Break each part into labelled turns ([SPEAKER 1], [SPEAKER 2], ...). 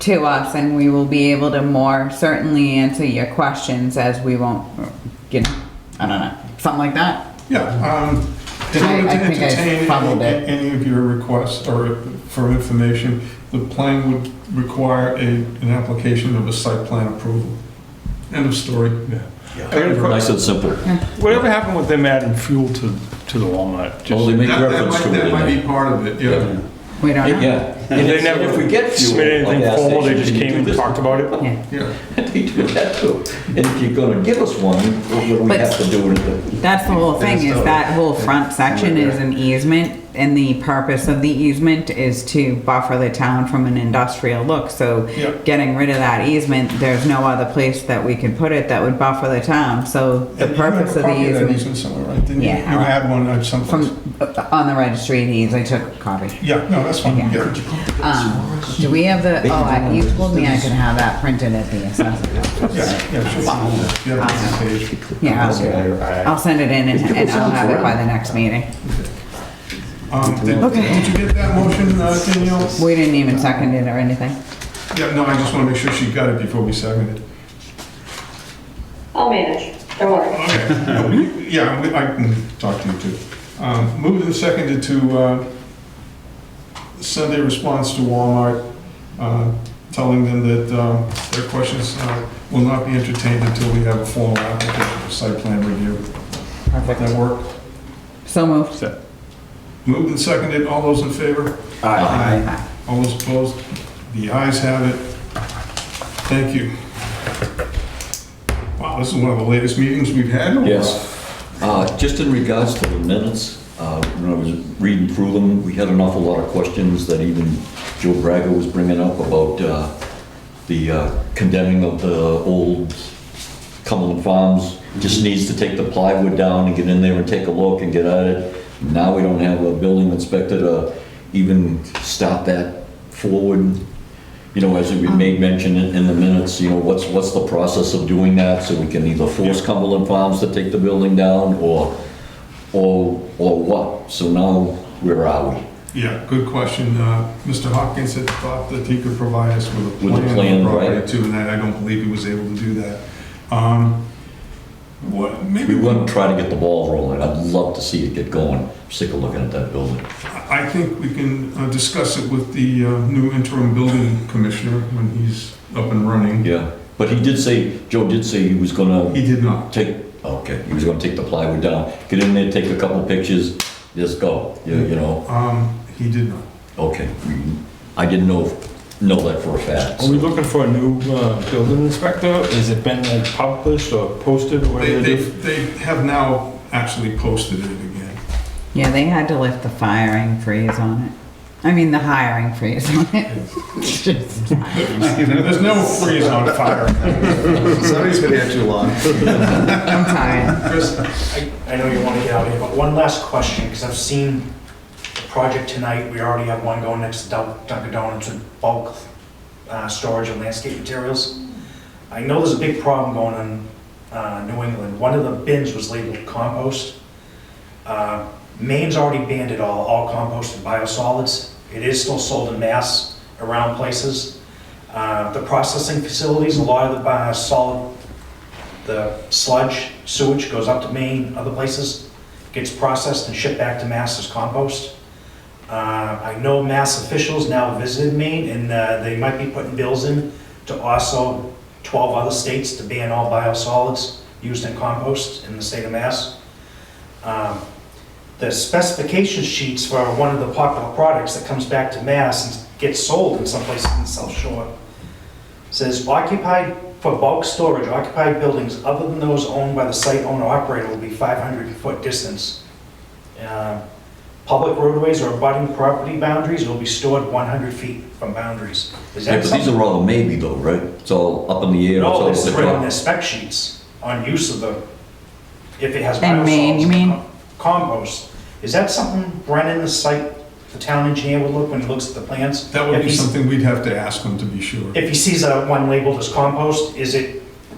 [SPEAKER 1] to us and we will be able to more certainly answer your questions as we won't, you know, I don't know, something like that.
[SPEAKER 2] Yeah, um, in
[SPEAKER 1] I-
[SPEAKER 2] order
[SPEAKER 1] I
[SPEAKER 2] to
[SPEAKER 1] think I
[SPEAKER 2] entertain
[SPEAKER 1] fumbled it.
[SPEAKER 2] any- any of your requests or for information, the plan would require a, an application of a site plan approval. End of story.
[SPEAKER 3] I got a
[SPEAKER 4] Nice
[SPEAKER 3] question.
[SPEAKER 4] and simple.
[SPEAKER 3] Whatever happened with them adding fuel to, to the walnut?
[SPEAKER 4] Well, they
[SPEAKER 3] Just
[SPEAKER 4] make
[SPEAKER 2] That- That
[SPEAKER 4] reference
[SPEAKER 2] might,
[SPEAKER 4] to it
[SPEAKER 2] that
[SPEAKER 4] in
[SPEAKER 2] might be
[SPEAKER 4] there.
[SPEAKER 2] part of it, yeah.
[SPEAKER 1] We don't know.
[SPEAKER 4] Yeah. And
[SPEAKER 3] They
[SPEAKER 4] it's-
[SPEAKER 3] never
[SPEAKER 4] if we get fuel,
[SPEAKER 3] submitted
[SPEAKER 4] like
[SPEAKER 3] anything
[SPEAKER 4] gas
[SPEAKER 3] formal, they
[SPEAKER 4] stations,
[SPEAKER 3] just
[SPEAKER 4] you
[SPEAKER 3] came
[SPEAKER 4] do
[SPEAKER 3] and
[SPEAKER 4] this.
[SPEAKER 3] talked about it?
[SPEAKER 1] Yeah.
[SPEAKER 2] Yeah,
[SPEAKER 4] They do that too. And if you're gonna give us one, what we
[SPEAKER 1] But-
[SPEAKER 4] have to do with it.
[SPEAKER 1] That's the whole thing, is that whole front section is an easement, and the purpose of the easement is to buffer the town from an industrial look, so
[SPEAKER 2] Yep.
[SPEAKER 1] getting rid of that easement, there's no other place that we can put it that would buffer the town, so the
[SPEAKER 2] And you have
[SPEAKER 1] purpose
[SPEAKER 2] a
[SPEAKER 1] of the
[SPEAKER 2] copy that
[SPEAKER 1] easement.
[SPEAKER 2] easement somewhere, right? Didn't you?
[SPEAKER 1] Yeah.
[SPEAKER 2] You had one at some
[SPEAKER 1] From, uh,
[SPEAKER 2] place.
[SPEAKER 1] on the registry of deeds, I took a copy.
[SPEAKER 2] Yeah, no, that's fine, yeah.
[SPEAKER 1] Um, do we have the, oh, I- you told me I could have that printed at the assessor's office.
[SPEAKER 2] Yeah, yeah, sure. You have it on the page.
[SPEAKER 1] Yeah, I'll, I'll send it in and and I'll have it by the next meeting.
[SPEAKER 2] Um, Did
[SPEAKER 1] Okay.
[SPEAKER 2] did you get that motion, uh, Danielle?
[SPEAKER 1] We didn't even second it or anything.
[SPEAKER 2] Yeah, no, I just want to make sure she got it before we seconded it.
[SPEAKER 5] I'll manage, don't worry.
[SPEAKER 2] Okay, yeah, we- yeah, we- I can talk to you too. Um, Moved and seconded to uh, send a response to Walmart, uh, telling them that um, their questions uh, will not be entertained until we have a formal application for site plan review. Let that work.
[SPEAKER 1] So moved.
[SPEAKER 2] Moved and seconded, all those in favor? Aye. All those opposed? The ayes have it. Thank you. Wow, this is one of the latest meetings we've had. in a
[SPEAKER 4] Yes. Uh, Just in regards to the minutes, uh, when I was reading through them, we had an awful lot of questions that even Joe Braga was bringing up about uh, the uh, condemning of the old Cumberland Farms. Just needs to take the plywood down and get in there and take a look and get at it. Now we don't have a building inspector to even start that forward. You know, as we made mention in in the minutes, you know, what's, what's the process of doing that? So we can either force Cumberland Farms to take the building down or, or, or what? So now, where are we?
[SPEAKER 2] Yeah, good question. Uh, Mr. Hopkins had thought that he could provide us with a
[SPEAKER 4] With
[SPEAKER 2] plan of the
[SPEAKER 4] a plan,
[SPEAKER 2] property
[SPEAKER 4] right.
[SPEAKER 2] too, and I I don't believe he was able to do that. Um, What, maybe,
[SPEAKER 4] We want to try to get the ball rolling. I'd love to see it get going. Sick of looking at that building.
[SPEAKER 2] I think we can uh, discuss it with the uh, new interim building commissioner when he's up and running.
[SPEAKER 4] Yeah. But he did say, Joe did say he was gonna
[SPEAKER 2] He did not.
[SPEAKER 4] take, okay, he was gonna take the plywood down, get in there, take a couple pictures, just go, you you know?
[SPEAKER 2] Um, He did not.
[SPEAKER 4] Okay. I didn't know, know that for a fact.
[SPEAKER 3] Are we looking for a new uh, building inspector? Has it been like, published or posted or
[SPEAKER 2] They,
[SPEAKER 3] whatever?
[SPEAKER 2] they,
[SPEAKER 3] it is?
[SPEAKER 2] they have now actually posted it again.
[SPEAKER 1] Yeah, they had to lift the firing freeze on it. I mean, the hiring freeze on it. It's just-
[SPEAKER 2] There's no freeze on fire.
[SPEAKER 6] Somebody's been here too long.
[SPEAKER 1] I'm tired.
[SPEAKER 7] Chris, I, I know you want to get out of here, but one last question, because I've seen the project tonight, we already have one going next to Dun- Dunkin' Donuts with bulk uh, storage of landscape materials. I know there's a big problem going on uh, New England. One of the bins was labeled compost. Uh, Maine's already banned it all, all compost and biosolids. It is still sold in mass around places. Uh, The processing facilities, a lot of the uh, solid the sludge, sewage goes up to Maine, other places, gets processed and shipped back to Mass as compost. Uh, I know Mass officials now visited Maine, and uh, they might be putting bills in to also 12 other states to ban all biosolids used in compost in the state of Mass. Um, The specification sheets for one of the popular products that comes back to Mass and gets sold in some places in the South Shore says occupied, for bulk storage, occupied buildings other than those owned by the site owner operator will be 500-foot distance. Uh, Public roadways or abutting property boundaries will be stored 100 feet from boundaries.
[SPEAKER 4] Yeah,
[SPEAKER 7] Is that
[SPEAKER 4] but these
[SPEAKER 7] something?
[SPEAKER 4] are all a maybe though, right? It's all up in the air. it's all
[SPEAKER 7] No, Oh, this is
[SPEAKER 4] up in
[SPEAKER 7] right
[SPEAKER 4] the
[SPEAKER 7] on
[SPEAKER 4] top.
[SPEAKER 7] their spec sheets on use of the, if it has
[SPEAKER 1] And Maine, you
[SPEAKER 7] biosolids,
[SPEAKER 1] mean?
[SPEAKER 7] Compost. Is that something Brennan, the site, the town engineer would look when he looks at the plans?
[SPEAKER 2] That would
[SPEAKER 7] If
[SPEAKER 2] be
[SPEAKER 7] he's-
[SPEAKER 2] something we'd have to ask them to be sure.
[SPEAKER 7] If he sees a one labeled as compost, is it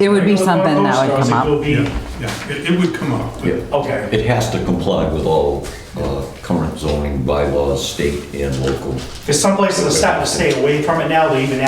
[SPEAKER 1] It would be
[SPEAKER 7] Regular
[SPEAKER 1] something that would
[SPEAKER 7] compost,
[SPEAKER 1] come
[SPEAKER 7] or
[SPEAKER 1] up.
[SPEAKER 7] is it
[SPEAKER 2] Yeah,
[SPEAKER 7] will be-
[SPEAKER 2] yeah, it, it would come up. but-
[SPEAKER 4] Yeah.
[SPEAKER 7] Okay,
[SPEAKER 4] It has to comply with all uh, current zoning bylaws, state and local.
[SPEAKER 7] because some places are starting to stay away from it now, they even